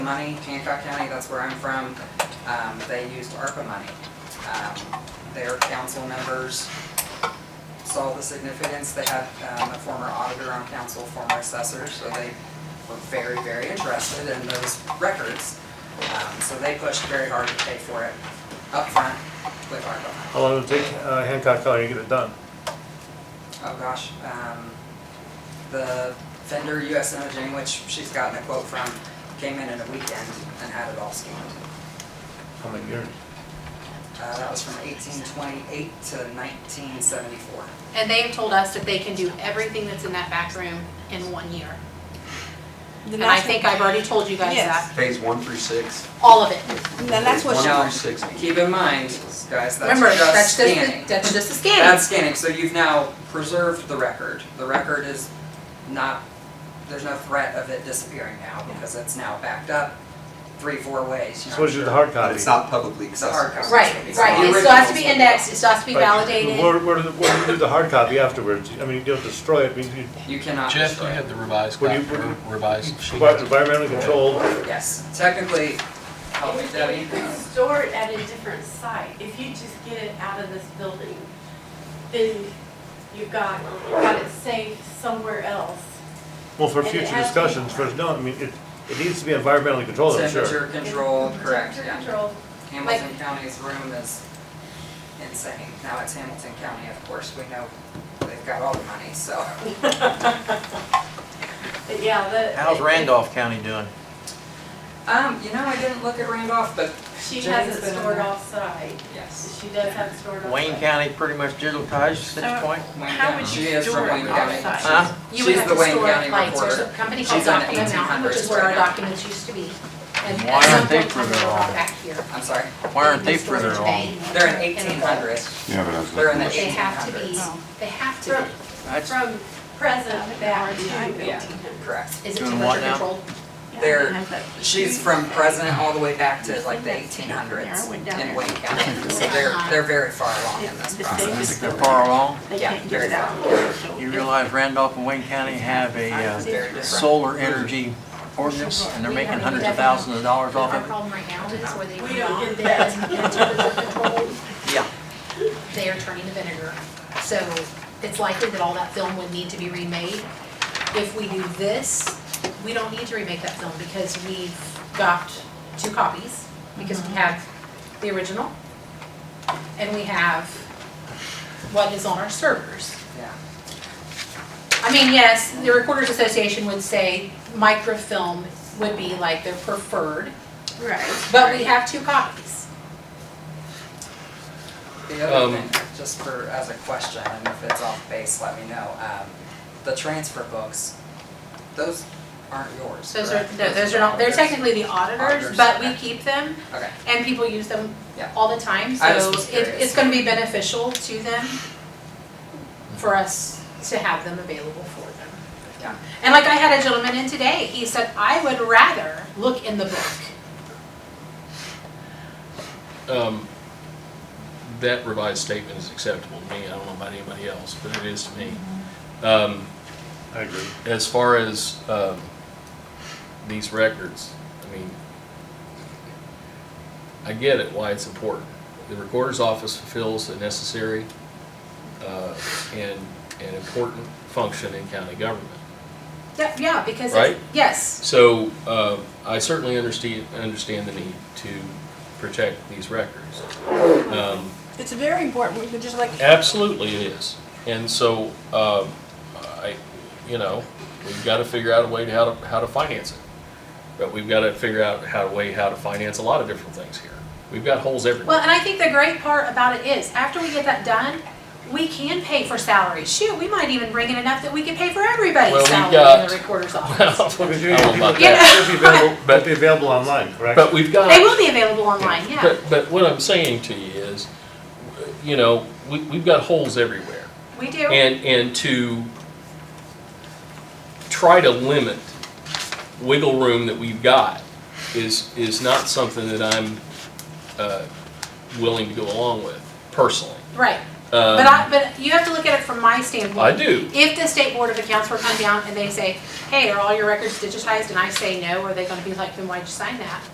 money, Hancock County, that's where I'm from, um, they used ARPA money. Um, Their council members saw the significance, they had um, a former auditor on council, former assessor, so they were very, very interested in those records. Um, So they pushed very hard to pay for it upfront with ARPA money. How long did it take uh, Hancock County to get it done? oh gosh, um, the vendor US Imaging, which she's gotten a quote from, came in in a weekend and had it all scanned. How many years? Uh, that was from eighteen twenty-eight to nineteen seventy-four. And they have told us that they can do everything that's in that back room in one year. Then And I that's- think I've already told you guys Yes. that, Phase one through six. all of it. Then that's what, Phase she- One through six. Keep in mind, guys, that's Remember, just that's just, scanning. the- that's just the That's scanning, scanning. so you've now preserved the record. The record is not, there's no threat of it disappearing now because it's now backed up three, four ways, you know. So it's just a hard But copy? it's not publicly It's a hard accessible. copy. Right, It's right, the it still has to be original. indexed, it still has to be But validated. Where, where do, the- where do you do the hard copy afterwards? I mean, you don't destroy it, I mean, you- You cannot Jeff, you destroy it. had the revised, Would you- copy, would you- revised sheet. environmentally controlled, Yes, technically, help me If Debbie. you could store it at a different site, if you just get it out of this building, then you've got, you've got it safe somewhere else. well, for And it future has to be- discussions, for, no, I mean, it, it needs to be environmentally controlled, I'm sure. Temperature control, correct, Temperature yeah. control. Hamilton County's room is insane. Now it's Hamilton County, of course, we know they've got all the money, so. But yeah, the. How's Randolph County doing? Um, you know, I didn't look at Randolph, but She Jenny's has it been in stored there. offsite. yes. She does have it stored offsite. Wayne County pretty much digitized at this point? Wayne How County- would she you is from store it Wayne County. outside? She's- Huh? You would She's have the to Wayne store County lights, there's a recorder. company She's called on the Document Mountain, which 1800s is where right our now. documents used to be. And Why at some aren't they point, further they're all along? back here. I'm sorry, Why aren't they These stores further today along? they're in in a vault. eighteen hundreds. Yeah, but I was They're looking in the at They eighteen have to be, hundreds. they have to From, be. That's from present back to Yeah. eighteen hundred. Correct. Is it Doing too what much now? controlled? They're, she's from president all the way back to like the eighteen hundreds in Wayne County. So they're, they're very far along in this process. They're far along? they Yeah, can't get very it out. You realize Randolph and Wayne County have a uh, Very different. solar energy ordinance, and they're making hundreds of thousands of dollars off Our of problem right now is where they We were don't get not, that. it's under control. it. Yeah. they are turning to vinegar. So it's likely that all that film would need to be remade. If we do this, we don't need to remake that film because we've got two copies, because we have the original and we have what is on our servers. Yeah. I mean, yes, the Recorders Association would say microfilm would be like their preferred, Right. but we have two copies. The other Um, thing, just for, as a question, and if it's off base, let me know, um, the transfer books, those aren't yours, Those are, correct? those are not, they're yours. technically the auditors, Auditors, but we okay. keep them Okay, And people use them Yeah. all the time, so I just was it, curious. it's gonna be beneficial to them for us to have them available for them. Yeah. And like I had a gentleman in today, he said, I would rather look in the book. Um, That revised statement is acceptable to me. I don't know about anybody else, but it is to me. Um, I agree. As far as um, these records, I mean, I get it why it's important. The recorder's office fulfills a necessary uh, and an important function in county government. Yeah, yeah, because Right. it's, yes, So uh, I certainly understand, understand the need to protect these records. Um, It's very important, we could just like, Absolutely it is. And so, um, I, you know, we've got to figure out a way to how to, how to finance it. But we've got to figure out how, a way how to finance a lot of different things here. We've got holes well, everywhere. and I think the great part about it is, after we get that done, we can pay for salaries, shoot, we might even bring in enough that we can pay for Well, everybody's we've salary in got- the recorder's office. Well, Well, because I you- don't know about people- that. It'll be available, But- it'll be available online, correct? But we've got. They will be available online, yeah, But, but what I'm saying to you is, you know, we, we've got holes everywhere. we do. And, and to try to limit wiggle room that we've got is, is not something that I'm uh, willing to go along with personally. Right, But I, but you have to look at it from my standpoint. Um, I do. If the state board of accounts were to come down and they say, hey, are all your records digitized? And I say no, are they gonna be like, then why'd you sign that?